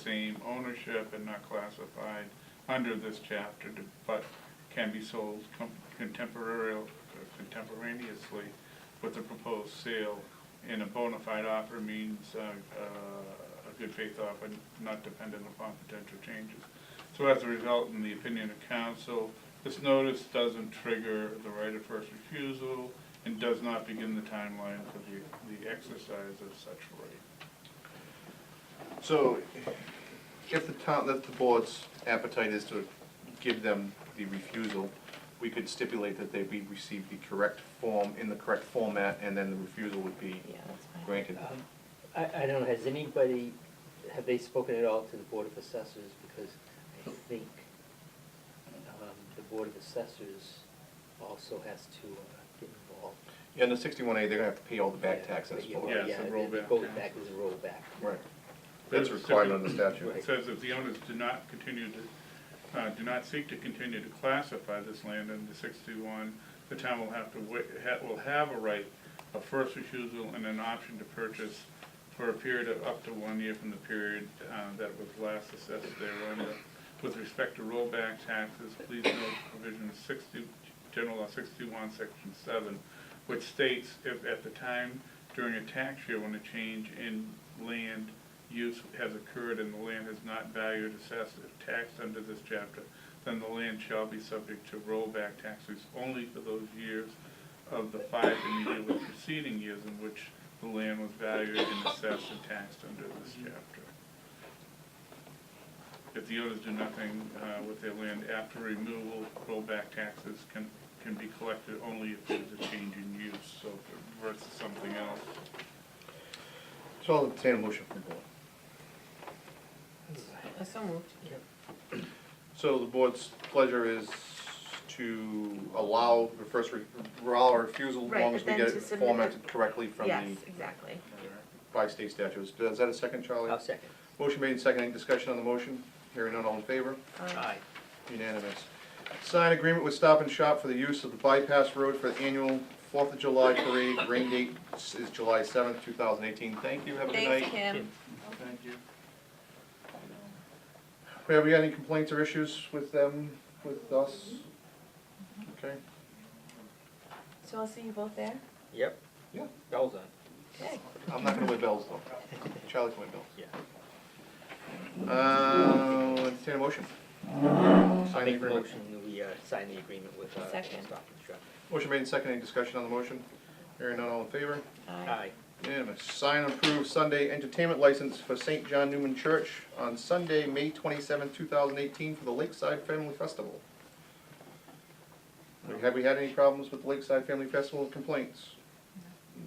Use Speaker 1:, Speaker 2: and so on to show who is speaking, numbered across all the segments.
Speaker 1: same ownership and not classified under this chapter, to- but can be sold com- contemporary, contemporaneously with the proposed sale. And a bona fide offer means uh, uh, a good faith offer, not dependent upon potential changes. So as a result, in the opinion of council, this notice doesn't trigger the right of first refusal and does not begin the timeline for the, the exercise of such right.
Speaker 2: So, if the town, if the board's appetite is to give them the refusal, we could stipulate that they be received the correct form, in the correct format, and then the refusal would be
Speaker 3: Yeah, that's fine.
Speaker 2: granted.
Speaker 4: Um, I, I don't know, has anybody, have they spoken at all to the Board of Assessors? Because I think um, the Board of Assessors also has to uh, get involved.
Speaker 2: Yeah, under sixty-one A, they're gonna have to pay all the back
Speaker 4: Yeah,
Speaker 2: taxes
Speaker 4: yeah,
Speaker 2: for it.
Speaker 1: Yeah, it's a
Speaker 4: the
Speaker 1: rollback
Speaker 4: Goes
Speaker 1: tax.
Speaker 4: back as a rollback.
Speaker 2: Right. That's required under
Speaker 1: It
Speaker 2: statute.
Speaker 1: says if the owners do not continue to, uh, do not seek to continue to classify this land under sixty-one, the town will have to wa, ha, will have a right of first refusal and an option to purchase for a period of up to one year from the period, uh, that was last assessed thereunder. With respect to rollback taxes, please note provision sixty, general law sixty-one, section seven, which states if at the time during a tax year when a change in land use has occurred and the land is not valued, assessed, or taxed under this chapter, then the land shall be subject to rollback taxes only for those years of the five immediately preceding years in which the land was valued and assessed and taxed under this chapter. If the owners do nothing uh, with their land after removal, rollback taxes can, can be collected only if there's a change in use, so versus something else.
Speaker 2: So I'll obtain a motion from the board.
Speaker 3: Uh, So moved.
Speaker 2: So the board's pleasure is to allow the first, re- allow a refusal, as
Speaker 5: Right,
Speaker 2: long
Speaker 5: but
Speaker 2: as we
Speaker 5: then
Speaker 2: get
Speaker 5: to
Speaker 2: it
Speaker 5: submit the-
Speaker 2: formatted correctly from the,
Speaker 5: Yes, exactly.
Speaker 2: by state statutes. Is that a second, Charlie?
Speaker 4: I'll second.
Speaker 2: Motion made and seconded. Any discussion on the motion? Hearing none, all in favor?
Speaker 5: Um,
Speaker 4: Aye.
Speaker 2: Unanimous. Sign agreement with Stop and Shop for the use of the bypass road for the annual Fourth of July parade. Rain date is July seventh, two thousand eighteen. Thank you, have a good night.
Speaker 5: Thanks, Kim.
Speaker 1: Thank you.
Speaker 2: Have we got any complaints or issues with them, with us? Okay.
Speaker 5: So I'll see you both there?
Speaker 4: Yep.
Speaker 2: Yeah.
Speaker 4: Bells on.
Speaker 5: Okay.
Speaker 2: I'm not gonna win bells though. Charlie can win bells.
Speaker 4: Yeah.
Speaker 2: Uh, entertain a motion.
Speaker 4: I'll
Speaker 2: Sign the
Speaker 4: make the
Speaker 2: agreement.
Speaker 4: motion that we uh, sign the agreement with uh, Stop
Speaker 5: Second.
Speaker 4: and Shop.
Speaker 2: Motion made and seconded. Any discussion on the motion? Hearing none, all in favor?
Speaker 5: Aye.
Speaker 4: Aye.
Speaker 2: Unanimous. Sign and approve Sunday entertainment license for St. John Newman Church on Sunday, May twenty-seventh, two thousand eighteen, for the Lakeside Family Festival. Have we had any problems with Lakeside Family Festival complaints?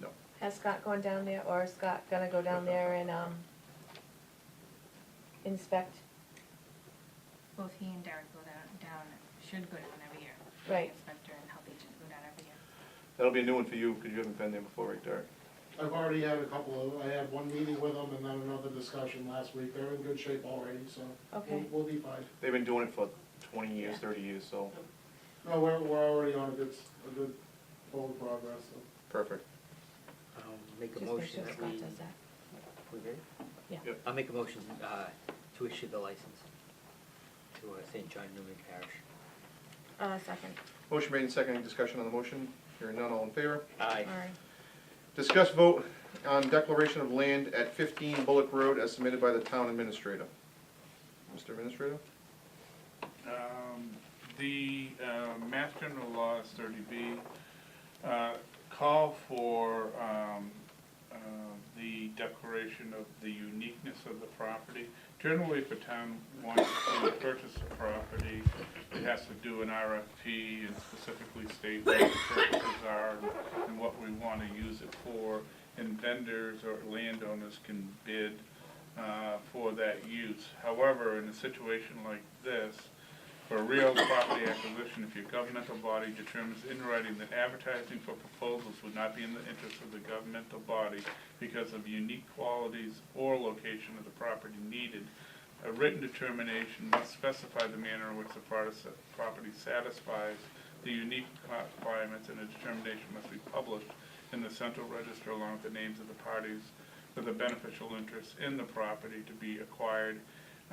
Speaker 2: No.
Speaker 5: Has Scott gone down there, or is Scott gonna go down there and, um, inspect?
Speaker 6: both he and Derek go down, down, should go down every year.
Speaker 5: Right.
Speaker 6: Inspector and health agent go down every year.
Speaker 2: That'll be a new one for you, because you haven't been there before, right, Derek?
Speaker 7: I've already had a couple of, I had one meeting with them and then another discussion last week. They're in good shape already, so we'll-
Speaker 5: Okay.
Speaker 7: we'll be fine.
Speaker 2: They've been doing it for twenty years, thirty years, so,
Speaker 7: No, we're, we're already on a good, s- a good forward progress, so.
Speaker 2: perfect.
Speaker 4: I'll Um, make a
Speaker 5: Just make
Speaker 4: motion
Speaker 5: sure
Speaker 4: that
Speaker 5: Scott
Speaker 4: we.
Speaker 5: does that.
Speaker 4: We ready?
Speaker 5: Yeah.
Speaker 2: Yep.
Speaker 4: I'll make a motion uh, to issue the license to uh, St. John Newman Parish.
Speaker 5: Uh, second.
Speaker 2: Motion made and seconded. Any discussion on the motion? Hearing none, all in favor?
Speaker 4: Aye.
Speaker 5: Aye.
Speaker 2: Discuss vote on declaration of land at 15 Bullock Road as submitted by the town administrator. Mr. Administrator?
Speaker 1: Um, The uh, Mass General Laws thirty B uh, call for um, uh, the declaration of the uniqueness of the property. Generally, if a town wants to purchase a property, it has to do an RFP and specifically state what the purposes are and what we want to use it for. And vendors or landowners can bid uh, for that use. However, in a situation like this, for a real property acquisition, if your governmental body determines in writing that advertising for proposals would not be in the interest of the governmental body because of unique qualities or location of the property needed, a written determination must specify the manner in which the produce- property satisfies the unique requirements, and a determination must be published in the central register along with the names of the parties with a beneficial interest in the property to be acquired